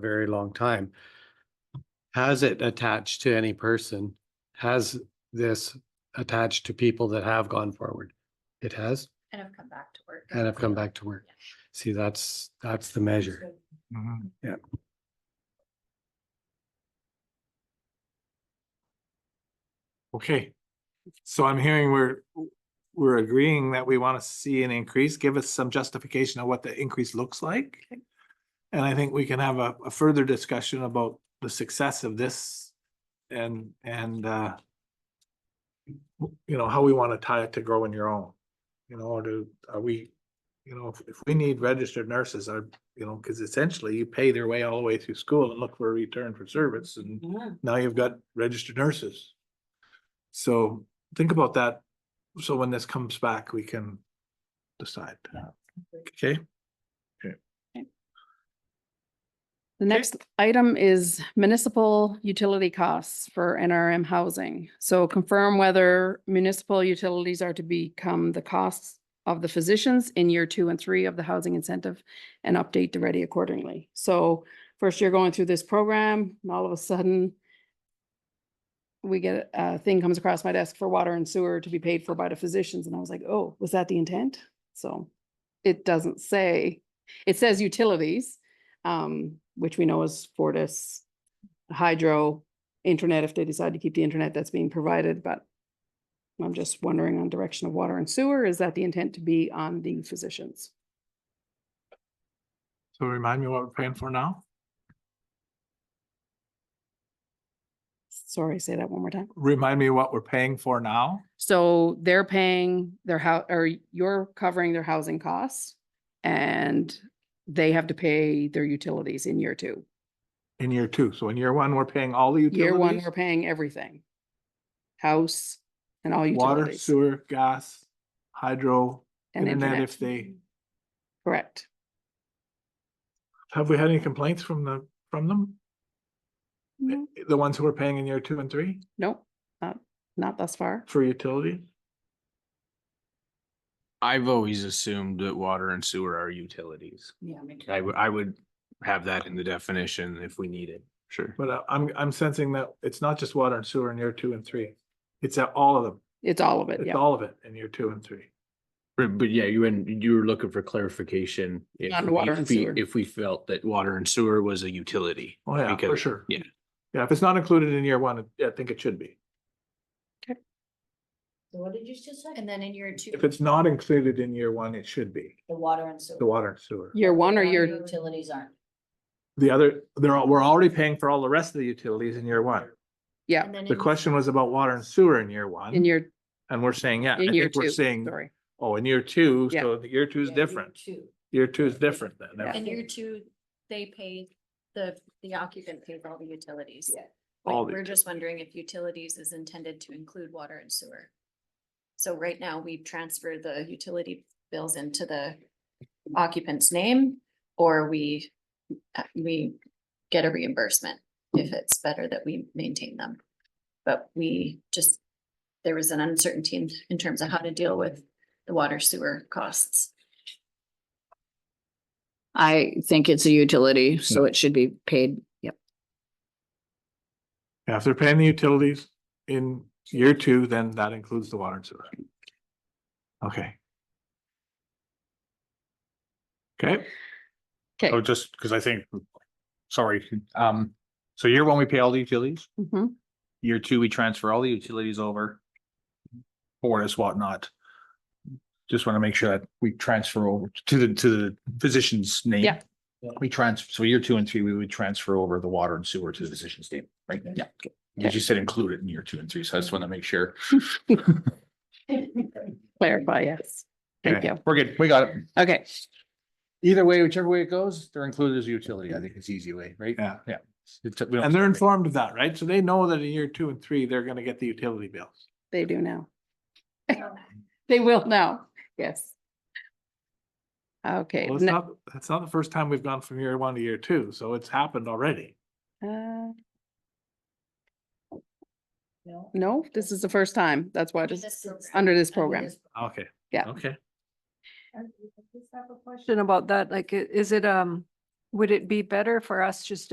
very long time. Has it attached to any person? Has this attached to people that have gone forward? It has And I've come back to work. and have come back to work. See, that's, that's the measure. Mm-hmm. Yeah. Okay, so I'm hearing we're, we're agreeing that we want to see an increase. Give us some justification of what the increase looks like. And I think we can have a, a further discussion about the success of this and, and, uh, you know, how we want to tie it to growing your own, you know, or do, are we, you know, if, if we need registered nurses, are, you know, because essentially you pay their way all the way through school and look for a return for service and now you've got registered nurses. So think about that. So when this comes back, we can decide. Okay? The next item is municipal utility costs for NRM housing. So confirm whether municipal utilities are to become the costs of the physicians in year two and three of the housing incentive and update the ready accordingly. So first you're going through this program and all of a sudden we get, a thing comes across my desk for water and sewer to be paid for by the physicians. And I was like, oh, was that the intent? So it doesn't say, it says utilities um, which we know is Fortis, Hydro, Internet, if they decide to keep the internet that's being provided, but I'm just wondering on direction of water and sewer, is that the intent to be on the physicians? So remind me what we're paying for now? Sorry, say that one more time. Remind me what we're paying for now? So they're paying their house, or you're covering their housing costs and they have to pay their utilities in year two. In year two. So in year one, we're paying all the Year one, we're utilities, paying everything. House and all water, utilities sewer, gas, hydro, and internet if internet, they, correct. have we had any complaints from the, from them? Mm-hmm. The ones who are paying in year two and three Nope, not, not thus far. for utilities? I've always assumed that water and sewer are utilities. Yeah, me too. I would, I would have that in the definition if we need it. Sure. But I- I'm, I'm sensing that it's not just water and sewer in year two and three. It's at all of them. It's all of it, It's yeah. all of it in year two and three. But, but yeah, you and you were looking for clarification. if On we- water and if we- sewer. If we felt that water and sewer was a utility. Oh, yeah, for because- sure. yeah. Yeah, if it's not included in year one, I think it should be. What did you just say? And then in year two, If it's not included in year one, it should be The water and the sewer. water and sewer. Year one or Now the year, Utilities aren't. The other, they're, all we're already paying for all the rest of the utilities in year one. yeah, and then. The in- question was about water and sewer in year in one, year, and we're saying, yeah, I in year think we're two, saying, sorry. oh, in year two, Yeah. so the year two is Yeah, year different. Two. Year two is different then. Yeah. That's In year two, they paid, the, the occupant paid all the utilities. Yeah. Like, all the We're just wondering if utilities is intended to include water and sewer. So right now, we transfer the utility bills into the occupant's name, or we, uh, we get a reimbursement if it's better that we maintain them. But we just, there was an uncertainty in, in terms of how to deal with the water sewer costs. I think it's a utility, so it should be paid. Yep. Yeah, if they're paying the utilities in year two, then that includes the water and sewer. Okay. Okay, Oh, just because I think, sorry, um, so year one, we pay all the utilities, Mhm. year two, we transfer all the utilities over. Fortis, whatnot. Just want to make sure that we transfer over to the, to the physician's name. Yeah. We transfer, so year two and three, we would transfer over the water and sewer to the physician's name, right? Yeah. Because you said include it in year two and three, so I just want to make sure. Clarify, yes. Thank Okay, you. We're good, we got it. Okay, Either way, whichever way it goes, they're included as a utility. I think it's easy way, right? yeah, Yeah. It's- we don't- and they're informed of that, right? So they know that in year two and three, they're gonna get the utility bills. they do now. Oh. They will now, yes. Okay, Well, it's ne- not, that's not the first time we've gone from year one to year two, so it's happened already. uh, No. no, this is the first time. That's why it is This is- under this program. Okay. Yeah. Okay. Question about that, like, i- is it, um, would it be better for us just to